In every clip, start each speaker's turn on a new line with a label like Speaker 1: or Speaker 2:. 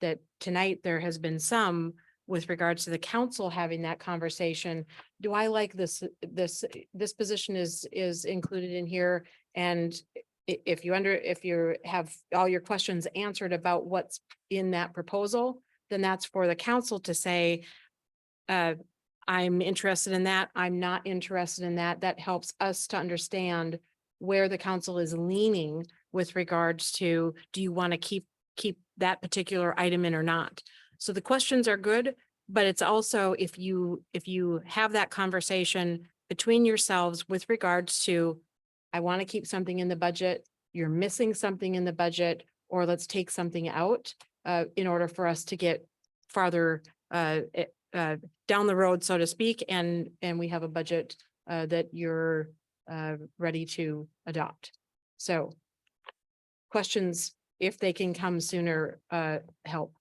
Speaker 1: that tonight there has been some with regards to the council having that conversation. Do I like this, this, this position is, is included in here? And i- if you under, if you have all your questions answered about what's in that proposal, then that's for the council to say, uh, I'm interested in that, I'm not interested in that. That helps us to understand where the council is leaning with regards to, do you want to keep, keep that particular item in or not? So the questions are good, but it's also if you, if you have that conversation between yourselves with regards to, I want to keep something in the budget, you're missing something in the budget, or let's take something out uh, in order for us to get farther uh, eh, uh, down the road, so to speak, and, and we have a budget uh, that you're uh, ready to adopt. So questions, if they can come sooner, uh, help.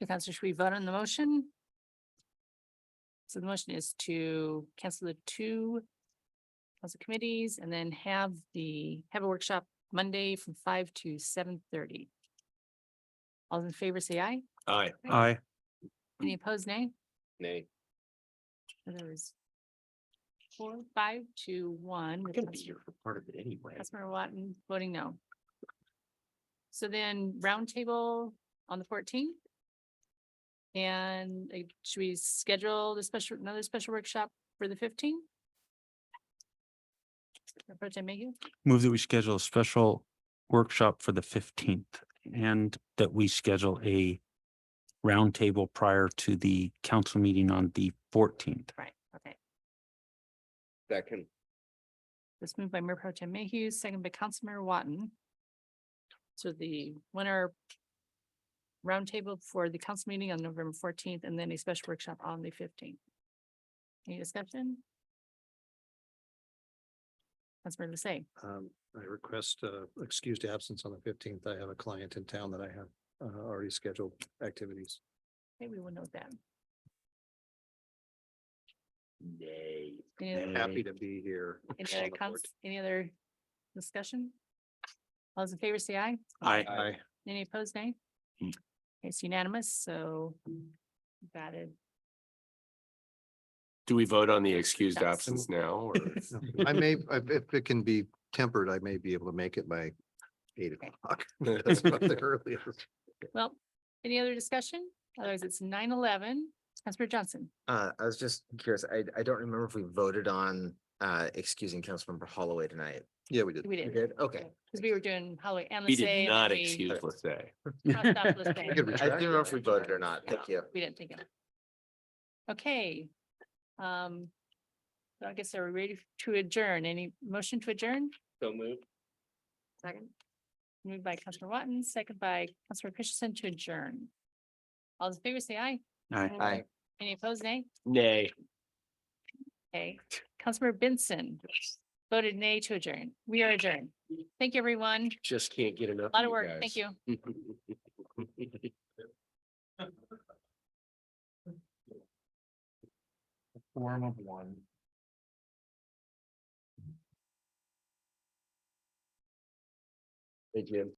Speaker 2: Okay, Counselor, should we vote on the motion? So the motion is to cancel the two council committees and then have the, have a workshop Monday from five to seven thirty. All in favor, say aye.
Speaker 3: Aye.
Speaker 4: Aye.
Speaker 2: Any opposed, nay?
Speaker 3: Nay.
Speaker 2: So There was four, five to one.
Speaker 3: I'm
Speaker 2: with
Speaker 3: gonna be
Speaker 2: Councilor-
Speaker 3: here for part of it anyway.
Speaker 2: Councilmember Watton voting no. So then roundtable on the fourteenth. And like, should we schedule the special, another special workshop for the fifteenth? Pro Tem Mayhew,
Speaker 4: Move that we schedule a special workshop for the fifteenth and that we schedule a roundtable prior to the council meeting on the fourteenth.
Speaker 2: right, okay.
Speaker 3: Second.
Speaker 2: This moved by Mayor Pro Tem Mayhew, second by Councilmember Watton. So the winner roundtable for the council meeting on November fourteenth and then a special workshop on the fifteenth. Any discussion? Councilmember Lasay.
Speaker 5: Um, I request, uh, excused absence on the fifteenth. I have a client in town that I have, uh, already scheduled activities.
Speaker 2: Okay, we will note that.
Speaker 3: Nay.
Speaker 2: Any other-
Speaker 3: Nay.
Speaker 5: Happy to be here.
Speaker 2: any
Speaker 5: on
Speaker 2: other
Speaker 5: the
Speaker 2: cons- any other discussion? All those in favor, say aye.
Speaker 4: Aye.
Speaker 5: 14th. Aye.
Speaker 2: Any opposed, nay?
Speaker 4: Hmm.
Speaker 2: It's unanimous, so got it.
Speaker 3: Do we vote on the excused
Speaker 2: Yes.
Speaker 3: absence now or?
Speaker 5: I may, if if it can be tempered, I may be able to make it by eight o'clock. That's about the earliest.
Speaker 2: Well, any other discussion? Otherwise, it's nine eleven. Councilor Johnson.
Speaker 6: Uh, I was just curious, I, I don't remember if we voted on, uh, excusing Councilmember Holloway tonight.
Speaker 5: Yeah, we did.
Speaker 2: We
Speaker 6: We
Speaker 2: did.
Speaker 6: did? Okay.
Speaker 2: Because we were doing Holloway and
Speaker 3: He
Speaker 2: Lassay.
Speaker 3: did
Speaker 2: and
Speaker 3: not
Speaker 2: then we
Speaker 3: excuse Lissay.
Speaker 2: crossed out Lassay.
Speaker 5: We could
Speaker 6: I
Speaker 5: retract
Speaker 6: didn't
Speaker 5: it.
Speaker 6: remember if we voted or not. Thank you.
Speaker 2: We didn't think of it. Okay. Um, so I guess are we ready to adjourn? Any motion to adjourn?
Speaker 3: So moved.
Speaker 2: Second. Moved by Councilor Watton, second by Councilor Christensen to adjourn. All those in favor say aye.
Speaker 4: Aye.
Speaker 6: Aye.
Speaker 2: Any opposed, nay?
Speaker 3: Nay.
Speaker 2: Okay. Councilor Benson voted nay to adjourn. We are adjourned. Thank you, everyone.
Speaker 3: Just can't get enough.
Speaker 2: A lot of work. Thank you.
Speaker 3: you. guys.
Speaker 5: Form of one.
Speaker 3: Thank you.